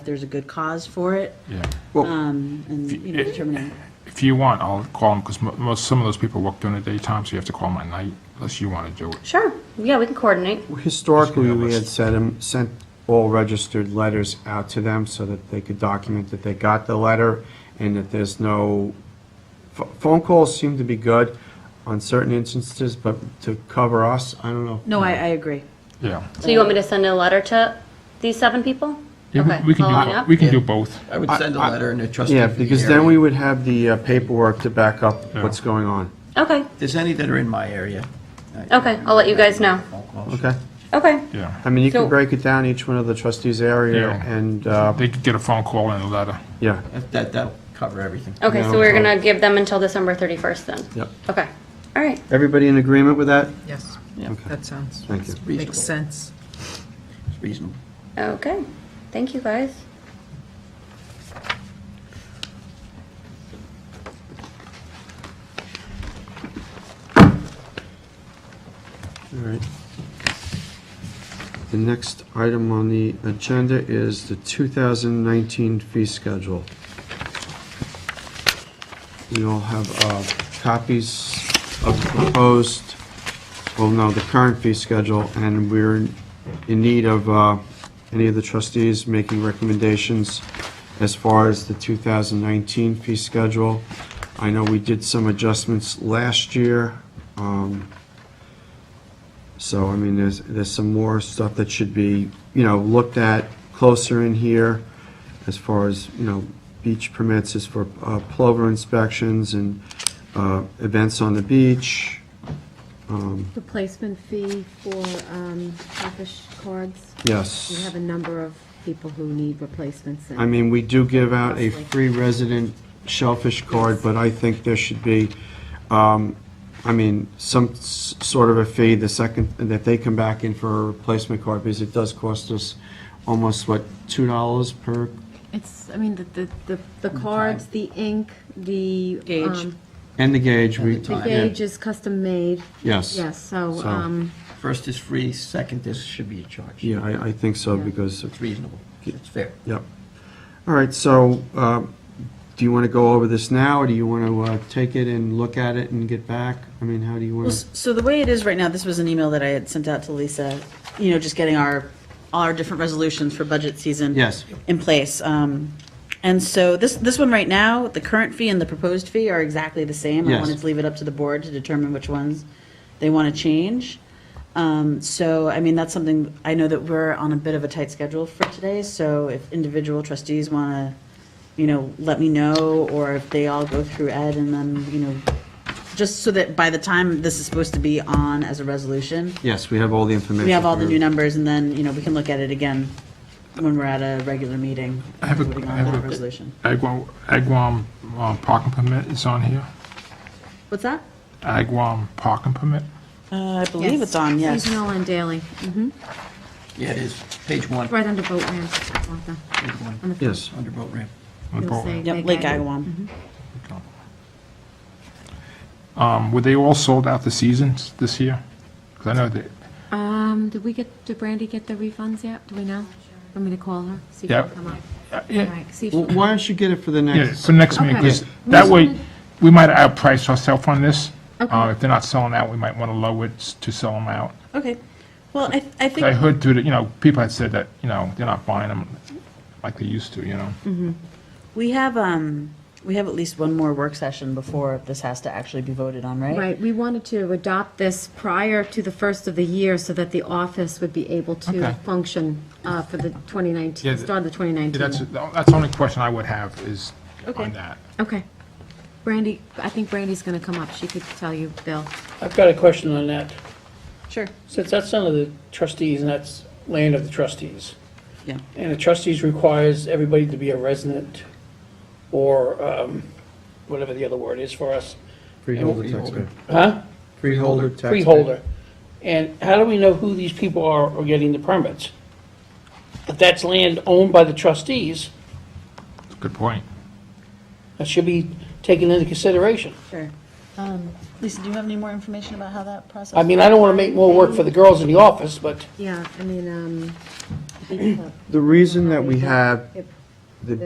there's a good cause for it, Yeah. um, and, you know, determining. If you want, I'll call them, because most, some of those people work during the daytime, so you have to call them at night, unless you want to do it. Sure, yeah, we can coordinate. Historically, we had List. sent 'em- sent all registered letters out to them so that they could document that they got the letter and that there's no, ph- phone calls seem to be good on certain instances, but to cover us, I don't know. No, I, I agree. Yeah. So you want me to send a letter to these seven people? Yeah, Okay, we- we can do, following bo- up? we can do both. I would send a I- letter and a trustee. Yeah, for the because then area. we would have the uh, paperwork to back up what's Yeah. going on. Okay, If there's any that are in my area. I- Okay, I'll let you guys know. Phone calls. Okay? okay, Yeah. I mean, you So- can break it down each one of the trustees' area Yeah. and, uh, They could get a phone call and a letter. yeah. That, that- that'll cover everything. okay, so No we're problem. gonna give them until December 31st then? Yep. Okay, all right, Everybody in agreement with that? Yes, Yeah, Okay. that sounds, Thank you. reasonable. makes sense. It's reasonable. okay, thank you guys. All right. The next item on the agenda is the 2019 fee schedule. We all have uh, copies of the proposed, well, no, the current fee schedule, and we're in need of uh, any of the trustees making recommendations as far as the 2019 fee schedule. I know we did some adjustments last year. um, so, I mean, there's, there's some more stuff that should be, you know, looked at closer in here as far as, you know, beach permits is for uh, plover inspections and uh, events on the beach. The placement fee for um, office cards? We Yes. have a number of people who need replacements. and- I mean, we do give out a free resident shellfish card, but I think there should be, um, I mean, some s- sort of a fee the second, that they come back in for a replacement card because it does cost us almost, what, $2 per It's, I mean, the, the, the the cards, the ink, the. Gauge. um, And the gauge, we, And the The time. yeah, gauge is custom made. Yes. Yes, so, So- um, First is free, second is, should be a charge. yeah, I, I think so, Yeah. because, It's reasonable. It's fair. yep. All right, so, uh, do you want to go over this now, or do you want to, uh, take it and look at it and get back? I mean, how do you Well, want s- So the way it is right now, this was an email that I had sent out to Lisa, you know, just getting our, all our different resolutions for budget season. Yes. In place. Um, And so this, this one right now, the current fee and the proposed fee are exactly the same. I Yes. wanted to leave it up to the board to determine which ones they want to change. Um, So, I mean, that's something, I know that we're on a bit of a tight schedule for today, so if individual trustees want to, you know, let me know, or if they all go through Ed and then, you know, just so that by the time this is supposed to be on as a resolution, Yes, we have all the information. we have all the new numbers, numbers. and then, you know, we can look at it again when we're at a regular meeting, I have a- voting I on have that a- resolution. Agawam, Agawam uh, parking permit is on here. What's that? Agawam parking permit. Uh, I believe it's on, yes. Seasonal and daily, mhm. Yeah, it is. Page one, right under boat ramp, Martha, page one, on the front. Yes, under boat ramp. on the You'll boat. see. Yep, Lake Agawam. Um, Were they all sold out the seasons this year? Because I know that, Um, did we get, did Brandy get the refunds yet? Do we know? Want me to call her? See if Yeah. she'll come up. uh, All yeah, right, see if well, she'll why don't you get it for the yeah, next? for next meeting, Okay. 'cause Yeah. that way, Wasn't we might outprice ourselves on this. Okay. Uh, If they're not selling out, we might want to lower it s- to sell them out. Okay. Well, I, I think. I heard through the, you know, people had said that, you know, they're not buying them like they used to, you know? We have, um, we have at least one more work session before this has to actually be voted on, right? Right, we wanted to adopt this prior to the first of the year so that the office would be able to Okay. function uh, for the 2019, Yeah, start of the Yeah, That's, 2019. that's the only question I would have is Okay. on that. Okay. Brandy, I think Brandy's going to come up. She could tell you, Bill. I've got a question on that. Sure. Since that's under the trustees and that's land of the trustees, Yeah. and the trustees requires everybody to be a resident or um, whatever the other word is for us, Freeholder taxpayer. huh? Freeholder taxpayer. Freeholder. And how do we know who these people are who are getting the permits? If that's land owned by the trustees, Good point. that should be taken into consideration. Sure. Um, Lisa, do you have any more information about how that process? I mean, I don't want to make more work for the girls in the office, but Yeah, I mean, um, be. The reason that we have